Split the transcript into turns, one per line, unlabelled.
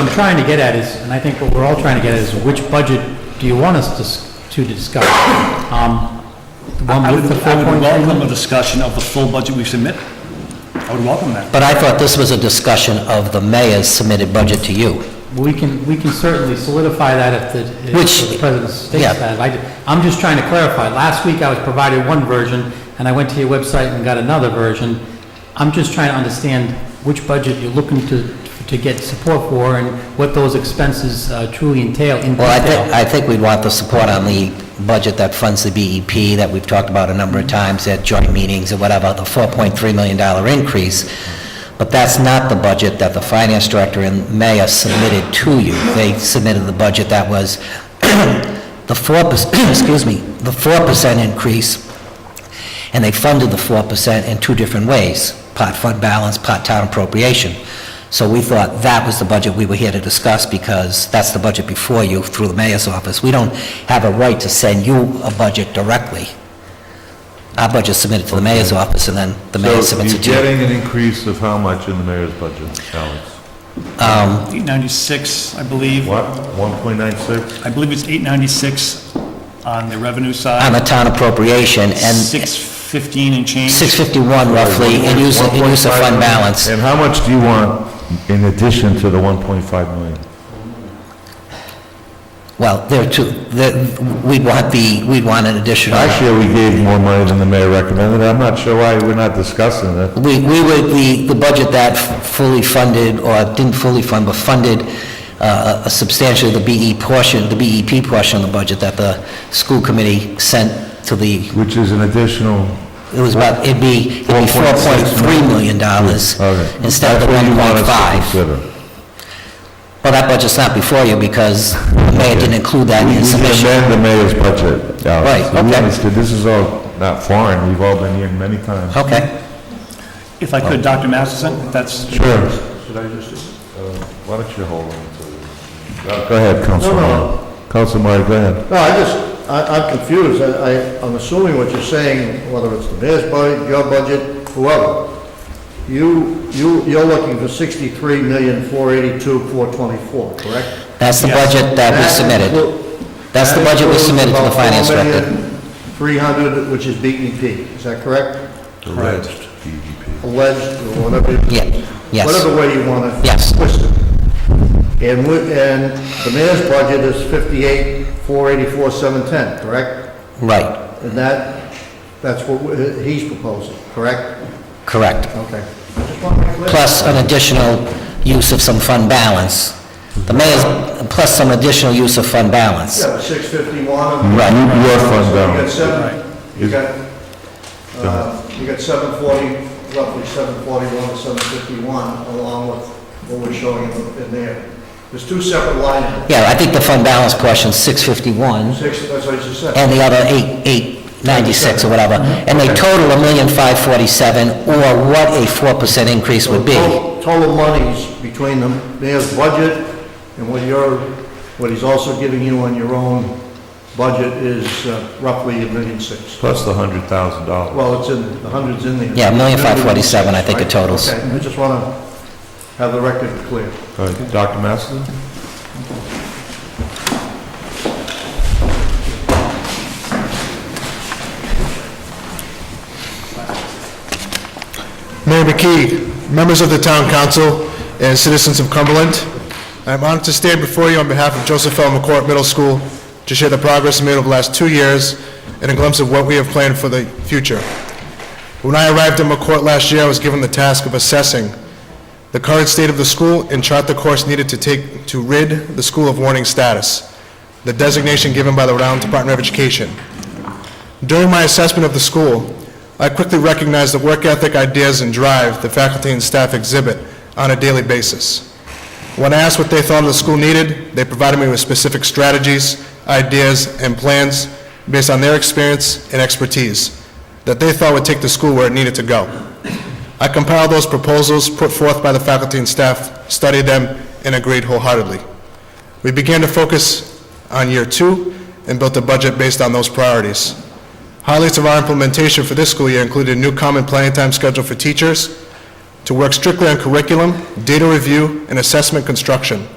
I'm trying to get at is, and I think what we're all trying to get at is, which budget do you want us to, s- to discuss? Um, The
I
one
would
with the
I
four
would
point?
welcome a discussion of the full budget we submit. I would welcome that.
But I thought this was a discussion of the mayor's submitted budget to you.
We can, we can certainly solidify that if the,
Which-
if the president
yeah.
states that. I, I'm just trying to clarify. Last week, I was provided one version, and I went to your website and got another version. I'm just trying to understand which budget you're looking to, to get support for, and what those expenses uh, truly entail in
Well, I think,
detail.
I think we'd want the support on the budget that funds the BEP that we've talked about a number of times at joint meetings or whatever, the $4.3 million increase. But that's not the budget that the finance director and mayor submitted to you. They submitted the budget that was the 4%, excuse me, the 4% increase, and they funded the 4% in two different ways, pot fund balance, pot town appropriation. So we thought that was the budget we were here to discuss, because that's the budget before you through the mayor's office. We don't have a right to send you a budget directly. Our budget's submitted to the mayor's office, and then the mayor
So
submits
you're
it to you.
getting an increase of how much in the mayor's budget, Alex?
896, I believe.
What, 1.96?
I believe it's 896 on the revenue
On
side,
the town appropriation, Um, and
615 and change.
651 roughly, in use, in use of
1.5
fund
million.
balance.
And how much do you want in addition to the 1.5 million?
Well, there are two, the- we'd want the, we'd want an additional...
Last year, we gave more money than the mayor recommended. I'm not sure why we're not discussing it.
We, we were, the, the budget that fully funded, or didn't fully fund, but funded uh, a substantially the BE portion, the BEP portion of the budget that the school committee sent to the,
Which is an additional,
it was about, it'd be, it'd be
1.6
$4.3 million dollars
Mm, okay.
instead of the
That's what you want us to
1.5.
consider.
Well, that budget's not before you because the mayor didn't include that
We
in
we
his
can
submission.
amend the mayor's budget, Alex.
Right,
We
okay.
understand, this is all not foreign, we've all been here many times.
Okay.
If I could, Dr. Masterson, if that's,
Sure. Should I just, uh, why don't you hold on to... Go ahead, Councilman. Councilman Murray, go ahead.
No, I just, I, I'm confused. I, I- I'm assuming what you're saying, whether it's the mayor's budget, your budget, whoever, you, you, you're looking for sixty-three million, four eighty-two, four twenty-four, correct?
That's the
Yes.
budget that we
That
submitted.
inclu-
That's the
that
budget we
includes
submitted to the
about
finance director.
4,300,000, which is BEP, is that correct?
Correct.
Alleged, or whatever. you-
Yeah, yes.
Whatever way you want to.
Yes.
Twist it. And we, and the mayor's budget is fifty-eight, four eighty-four, seven ten, correct?
Right,
And that, that's what we- he's proposing, correct?
correct.
Okay. I just want to make clear.
plus an additional use of some fund balance. The mayor's, plus some additional use of fund balance.
Yeah, six fifty-one.
Right.
You- Your fund
So you got
balance.
seven, you
Is-
got, uh, you got seven forty, roughly seven forty-one to seven fifty-one, along with what we're showing in in there. There's two separate lines,
Yeah, I think the fund balance portion's 651,
six, that's what I just said.
and the other 8, 896 or whatever, and they total a million five forty-seven, or what a 4% increase
So
would be.
total- Total monies between the mayor's budget and what you're, what he's also giving you on your own budget is uh, roughly a million six.
Plus the hundred thousand dollars.
Well, it's in, the hundreds in there.
Yeah, a million five forty-seven, I think it
Right?
totals.
Okay, I just want to have the record clear.
Dr. Masterson?
Mayor McKee, members of the Town Council, and citizens of Cumberland, I'm honored to stand before you on behalf of Joseph L. McCourt Middle School to share the progress made over the last two years and a glimpse of what we have planned for the future. When I arrived at McCourt last year, I was given the task of assessing the current state of the school and chart the course needed to take to rid the school of warning status, the designation given by the Rhode Island Department of Education. During my assessment of the school, I quickly recognized the work ethic, ideas, and drive the faculty and staff exhibit on a daily basis. When I asked what they thought the school needed, they provided me with specific strategies, ideas, and plans based on their experience and expertise that they thought would take the school where it needed to go. I compiled those proposals put forth by the faculty and staff, studied them, and agreed wholeheartedly. We began to focus on year two and built a budget based on those priorities. Highlights of our implementation for this school year included a new common planning time schedule for teachers, to work strictly on curriculum, data review, and assessment construction,